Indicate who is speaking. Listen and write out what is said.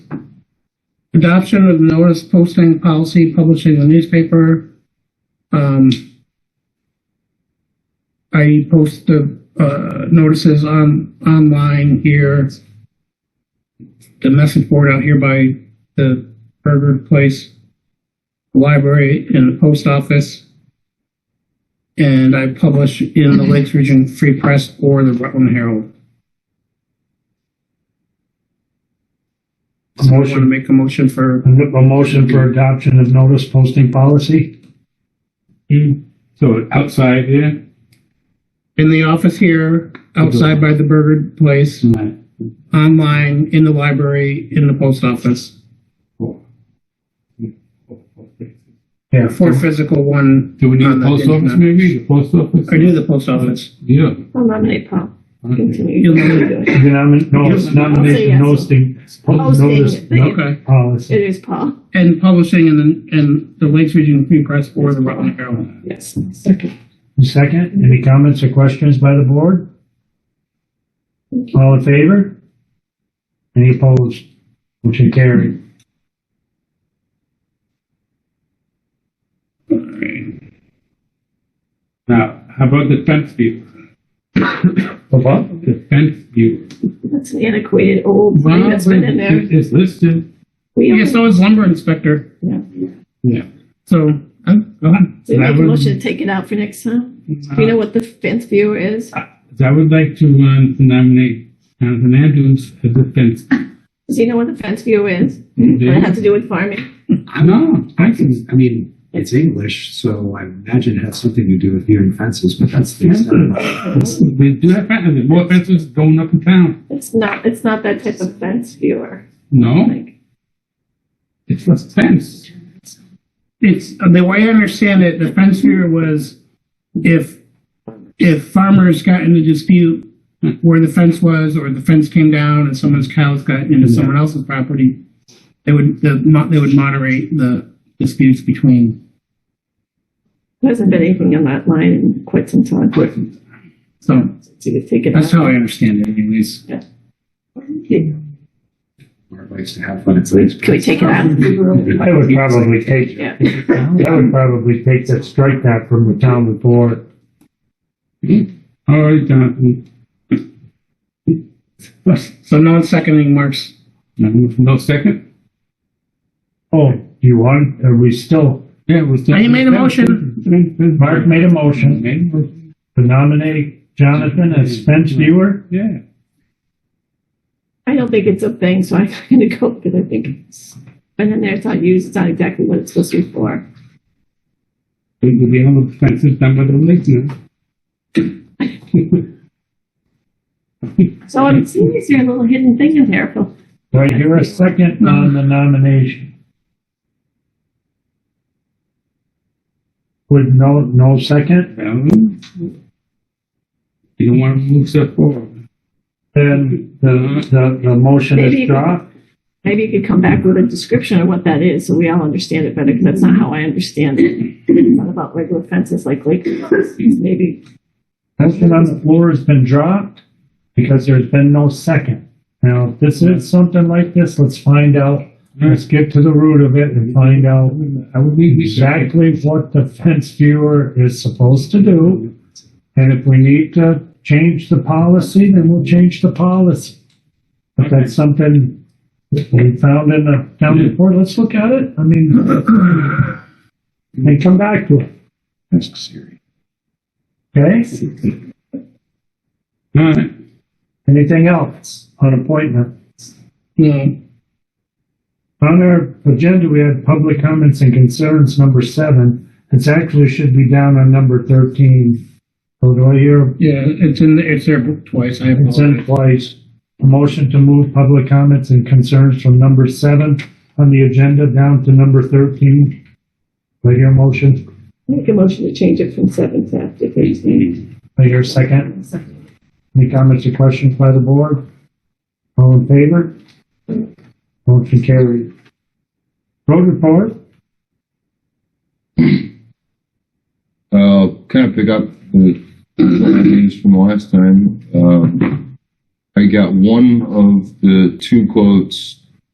Speaker 1: Adoption of notice posting policy, publishing the newspaper. Um, I post the, uh, notices on, online here. The message board out here by the burger place, the library and the post office. And I publish in the Lakes Region Free Press or the Rutland Herald. I want to
Speaker 2: Motion,
Speaker 1: make a motion for,
Speaker 2: a motion for adoption of notice posting policy?
Speaker 3: So outside here?
Speaker 1: in the office here, outside by the burger place,
Speaker 3: Right.
Speaker 1: online, in the library, in the post office.
Speaker 3: Four. Four, four, three.
Speaker 2: Yeah.
Speaker 1: Four physical, one.
Speaker 3: Do we need
Speaker 1: on
Speaker 3: a
Speaker 1: the
Speaker 3: post office
Speaker 1: internet.
Speaker 3: maybe? The post office?
Speaker 1: I do the post office.
Speaker 3: Yeah.
Speaker 4: I'll nominate Paul.
Speaker 1: You'll
Speaker 4: Continue.
Speaker 1: nominate-
Speaker 4: It
Speaker 2: You nominate, no, it's nomination,
Speaker 4: I'll say
Speaker 2: noticing, notice,
Speaker 4: Posting.
Speaker 2: no,
Speaker 1: Okay.
Speaker 2: policy.
Speaker 4: is Paul.
Speaker 1: And publishing and then, and the Lakes Region Free Press or the Rutland Herald.
Speaker 4: Yes. Second.
Speaker 2: Second, any comments or questions by the board? All in favor? Any opposed? Motion carried.
Speaker 3: Now, how about the fence viewer?
Speaker 2: What?
Speaker 3: The fence viewer.
Speaker 4: That's an antiquated old thing that's been in there.
Speaker 3: It- It's listed.
Speaker 4: We
Speaker 1: Yeah,
Speaker 4: own
Speaker 1: so is lumber inspector.
Speaker 4: it.
Speaker 3: Yeah.
Speaker 1: So, I'm, go ahead.
Speaker 4: So we
Speaker 3: And I
Speaker 4: make a
Speaker 3: would-
Speaker 4: motion to take it out for next time. Do you know what the fence viewer is?
Speaker 3: So I would like to, um, to nominate Jonathan Andrews as the fence.
Speaker 4: Does he know what the fence viewer is?
Speaker 1: Mm-hmm.
Speaker 4: What it has
Speaker 3: viewer.
Speaker 4: to do with farming?
Speaker 5: No, I can, I mean, it's English, so I imagine it has something to do with viewing fences, but that's the extent. of it.
Speaker 3: We do have fences, There's more fences going up in town.
Speaker 4: It's not, it's not that type of fence viewer.
Speaker 3: No,
Speaker 4: Like,
Speaker 3: it's a fence.
Speaker 1: It's, the way I understand it, the fence viewer was if, if farmers got in a dispute where the fence was, or the fence came down and someone's cows got into someone else's property, they would, the, mo- they would moderate the disputes between,
Speaker 4: there hasn't been anything on that line in quite some time. Quite.
Speaker 1: so
Speaker 4: So you take it out.
Speaker 1: that's how I understand it anyways.
Speaker 4: Can
Speaker 5: Or it likes to have fun, it's like.
Speaker 4: we take it out?
Speaker 2: I would probably take,
Speaker 4: Yeah.
Speaker 2: I would probably take that, strike that from the town report.
Speaker 3: All right, Jonathan.
Speaker 1: So no one's seconding Mark's,
Speaker 3: No second?
Speaker 2: Oh, you want, are we still,
Speaker 3: Yeah, we'll still.
Speaker 1: I made a motion.
Speaker 2: Mark made a motion
Speaker 3: Made a motion,
Speaker 2: to nominate Jonathan as fence viewer?
Speaker 3: yeah.
Speaker 4: I don't think it's a thing, so I'm not gonna go because I think it's been in there, it's not used, it's not exactly what it's supposed to be for.
Speaker 3: We will be able to fence it down by the lake now.
Speaker 4: So I'm seeing this here little hidden thing in there, Phil.
Speaker 2: Do I hear a second on the nomination? With no, no second,
Speaker 3: Well, You don't want to move stuff forward.
Speaker 2: then the, the, the motion
Speaker 4: Maybe-
Speaker 2: is dropped?
Speaker 4: Maybe you could come back with a description of what that is, so we all understand it better, because that's not how I understand it. It's not about regular fences like lake fences. maybe,
Speaker 2: Motion on the floor has been dropped because there's been no second. Now, if this is something like this, let's find out, let's get to the root of it and find out
Speaker 3: I would leave this.
Speaker 2: exactly what the fence viewer is supposed to do. And if we need to change the policy, then we'll change the policy. If that's something that we found in the town report, let's look at it, I mean, and come back to it,
Speaker 5: That's serious.
Speaker 2: okay?
Speaker 3: All right.
Speaker 2: Anything else on appointment?
Speaker 1: yeah,
Speaker 2: On our agenda, we had public comments and concerns, number seven. It's actually should be down on number thirteen. So do I hear
Speaker 1: yeah, it's in, the- it's there twice, I
Speaker 2: It's in
Speaker 1: apologize.
Speaker 2: place. A motion to move public comments and concerns from number seven on the agenda down to number thirteen. Do I hear a motion?
Speaker 4: make a motion to change it from seven to after thirteen.
Speaker 2: Do I hear a second? Any comments or questions by the board? All in favor? Motion carried. Road report?
Speaker 6: I'll kind of pick up the findings from last time. Um, I got one of the two quotes